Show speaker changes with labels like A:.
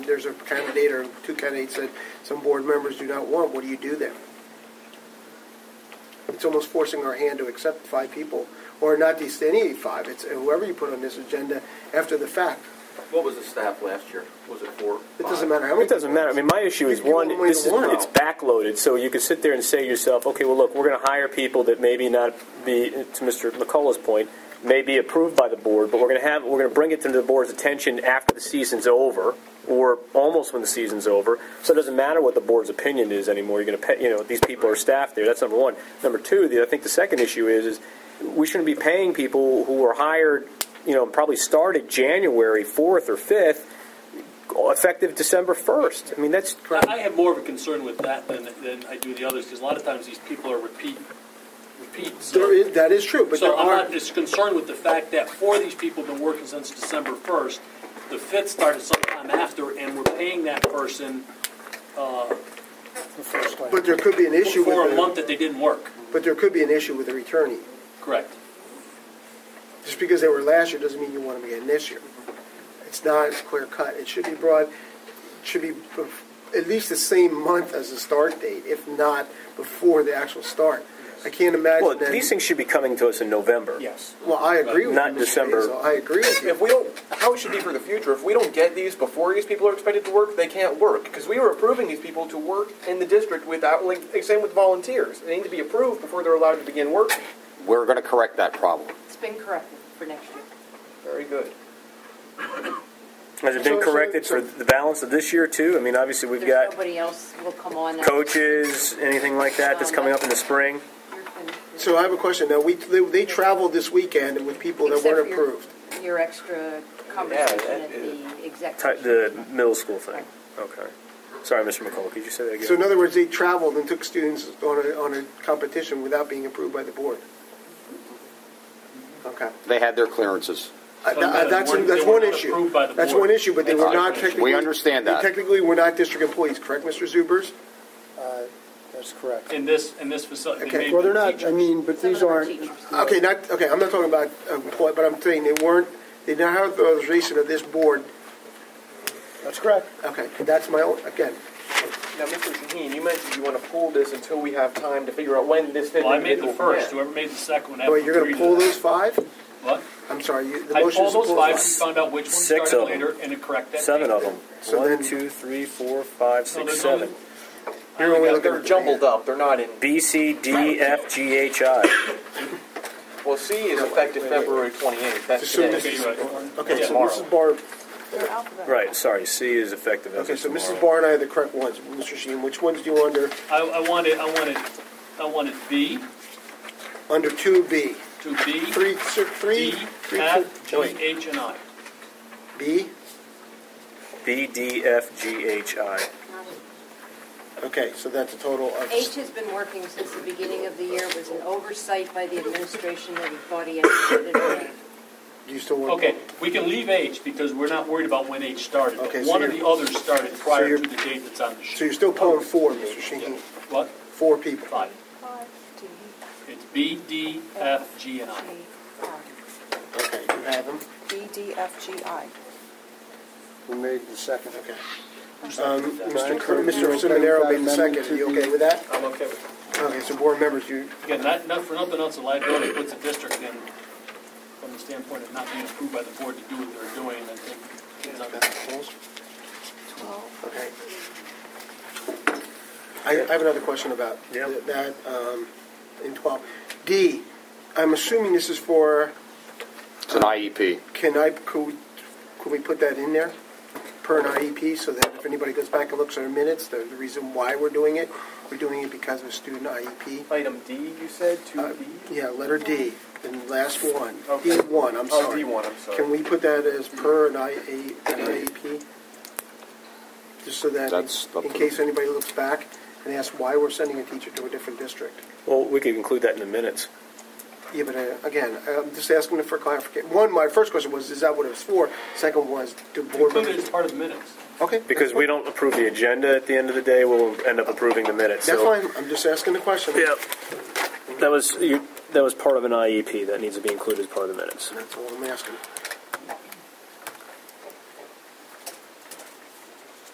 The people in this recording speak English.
A: there's a candidate or two candidates that some board members do not want, what do you do then? It's almost forcing our hand to accept five people, or not these, any five, it's whoever you put on this agenda after the fact.
B: What was the staff last year? Was it four?
A: It
B: five?
A: doesn't matter how many.
C: It doesn't matter. I mean, my issue is
A: You give
C: one.
A: them away
C: This
A: the
C: is
A: warrant.
C: it's backloaded, so you could sit there and say to yourself, okay, well, look, we're going to hire people that maybe not be to Mr. McCullough's point, may be approved by the board, but we're going to have we're going to bring it to the board's attention after the season's over or almost when the season's over. So it doesn't matter what the board's opinion is anymore. You're going to pay, you know, these people are staff there. That's number one. Number two, the, I think the second issue is is we shouldn't be paying people who were hired, you know, probably started January fourth or fifth effective December 1st. I mean, that's
D: I I have more of a concern with that than, than I do the others, because a lot of times these people are repeat, repeat. so-
A: There is, that is true, but there
D: So I'm
A: are,
D: not as concerned with the fact that four of these people have been working since December first. The fifth started sometime after, and we're paying that person uh,
A: but there could be an issue
D: for
A: with,
D: a month
A: the-
D: that they didn't work.
A: but there could be an issue with the returnee.
D: Correct.
A: Just because they were last year doesn't mean you want them again this year. It's not as clear cut. It should be brought, should be bef- at least the same month as the start date, if not before the actual start. I can't imagine
C: well,
A: that.
C: these things should be coming to us in November.
D: Yes.
A: well, I agree with
C: Not
A: you, Mr.
C: December.
A: Basil. I agree with
B: If
A: you.
B: we don't, how it should be for the future, if we don't get these before these people are expected to work, they can't work. Because we were approving these people to work in the district without, like, same with volunteers. They need to be approved before they're allowed to begin work.
E: We're going to correct that problem.
F: It's been corrected for next year.
B: Very good.
C: Has it been
A: So- so-
C: corrected
A: so-
C: for the balance of this year too? I mean, obviously we've
F: There's
C: got
F: nobody else will come on. now.
C: coaches, anything like that that's coming up in the spring.
F: You're finished.
A: So I have a question. Now, we, they, they traveled this weekend with people that
F: Except for
A: weren't
F: your-
A: approved.
F: Your extra conversation
B: that
F: at
B: is-
F: the
C: Ti-
F: executive.
C: The middle school thing. Okay. Sorry, Mr. McCullough, could you say that again?
A: So in other words, they traveled and took students on a, on a competition without being approved by the board. Okay.
E: They had their clearances.
A: Uh, tha-
D: So they
A: That's,
D: weren't-
A: that's
D: they were
A: one
D: not
A: issue.
D: approved by the
A: That's
D: board.
A: one issue, but they were
E: That's
A: not
E: right. We
A: technically.
E: understand
A: they
E: that.
A: Technically, were not district employees, correct, Mr. Zubers?
G: That's correct.
D: In this, in this facility.
A: Okay.
D: may
G: Well, they're
D: be
G: not, I
D: teachers.
G: mean, but
F: Some of
G: these
F: them are
G: aren't,
F: teachers.
A: Okay, not, okay, I'm not talking about employee, but I'm saying they weren't, they did not have the authorization of this board.
G: that's correct.
A: Okay, that's my own, again,
B: Now, Mr. Shaheen, you mentioned you want to pull this until we have time to figure out when this fifth
D: Well, I made the
B: individual can.
D: first, whoever made the second one. had
A: wait,
D: to
A: you're going
D: agree
A: to pull
D: that.
A: those five?
D: What?
A: I'm sorry, you, the
D: I
A: motion is
D: pulled
A: to pull
D: those five, we
A: those five.
D: found out which one
C: Six
D: started
C: of them.
D: later and to correct that.
C: Seven
D: date.
C: of them.
A: So
C: One,
A: then-
C: two, three, four, five,
D: No,
C: six,
D: there's only-
C: seven.
D: I only
B: They're-
D: got
B: They're
D: thirty.
B: jumbled up, they're not in,
C: B, C, D, F, G, H, I.
B: well, C is effective February twenty-eighth, that's
A: So
B: today.
A: this
D: Okay,
A: is-
D: you're right.
A: Okay, so
C: Tomorrow.
A: Mrs. Barr,
F: They're alphabetical.
C: Right, sorry, C is effective as
A: okay,
C: of
A: so Mrs.
C: tomorrow.
A: Barr and I are the correct ones. Mr. Sheen, which ones do you under,
D: I, I wanted, I wanted, I wanted B
A: under 2B?
D: to B.
A: Three, sir, three,
D: D,
A: three,
D: F,
A: two-
D: G,
A: wait,
D: H, and I.
A: B?
C: B, D, F, G, H, I.
A: Okay, so that's a total of.
F: H has been working since the beginning of the year. It was an oversight by the administration that he thought he had to get it away.
A: Do you still want?
D: Okay, we can leave H because we're not worried about when H started. but
A: Okay, so
D: One of
A: you're-
D: the others started prior
A: you're-
D: to the date that's on
A: So
D: the sheet.
A: you're still pulling four, Mr. Sheen,
D: What?
A: four people.
D: Five.
F: Five, two,
D: It's B, D, F, G, and I.
F: three, five.
A: Okay, you have them?
F: B, um, E D, F, G, I.
G: We made the second.
A: Okay.
D: Who's
A: Um,
D: that?
A: Mr.
G: Right.
A: Cur- Mr. Seminaro made the
G: Amendment
A: second, are
G: to
A: you
G: the-
A: okay with that?
B: I'm okay with that.
A: Okay, so board members, you,
D: Again, not, not for nothing else, the liability puts the district in, from the standpoint of not being approved by the board to do what they're doing, I think. it's on-
A: okay. I, I have another question about
C: Yeah.
A: th- that, um, in twelve. D, I'm assuming this is for,
E: It's an E IEP.
A: can I, could, we- could we put that in there? Per an IEP, so that if anybody goes back and looks at our minutes, the, the reason why we're doing it, we're doing it because of a student IEP.
B: Item D, you said,
A: Uh,
B: two D?
A: Yeah, letter D, and last one,
B: Okay.
A: D1, I'm
B: Oh,
A: sorry.
B: D1, I'm sorry.
A: Can we put that as per an IA an IEP? Just so that,
E: That's up
A: in
E: to-
A: case anybody looks back and asks why we're sending a teacher to a different district.
C: Well, we could include that in the minutes.
A: Yeah, but uh, again, I'm just asking for clarification. One, my first question was, is that what it was for? Second was, do board
D: Included
A: members?
D: as part of the minutes.
A: Okay.
C: Because we don't approve the agenda at the end of the day, we'll end up approving the minutes.
A: That's
C: so-
A: fine, I'm just asking the question.
C: Yeah. E That was, you, that was part of an IEP that needs to be included as part of the minutes.
A: That's all I'm asking.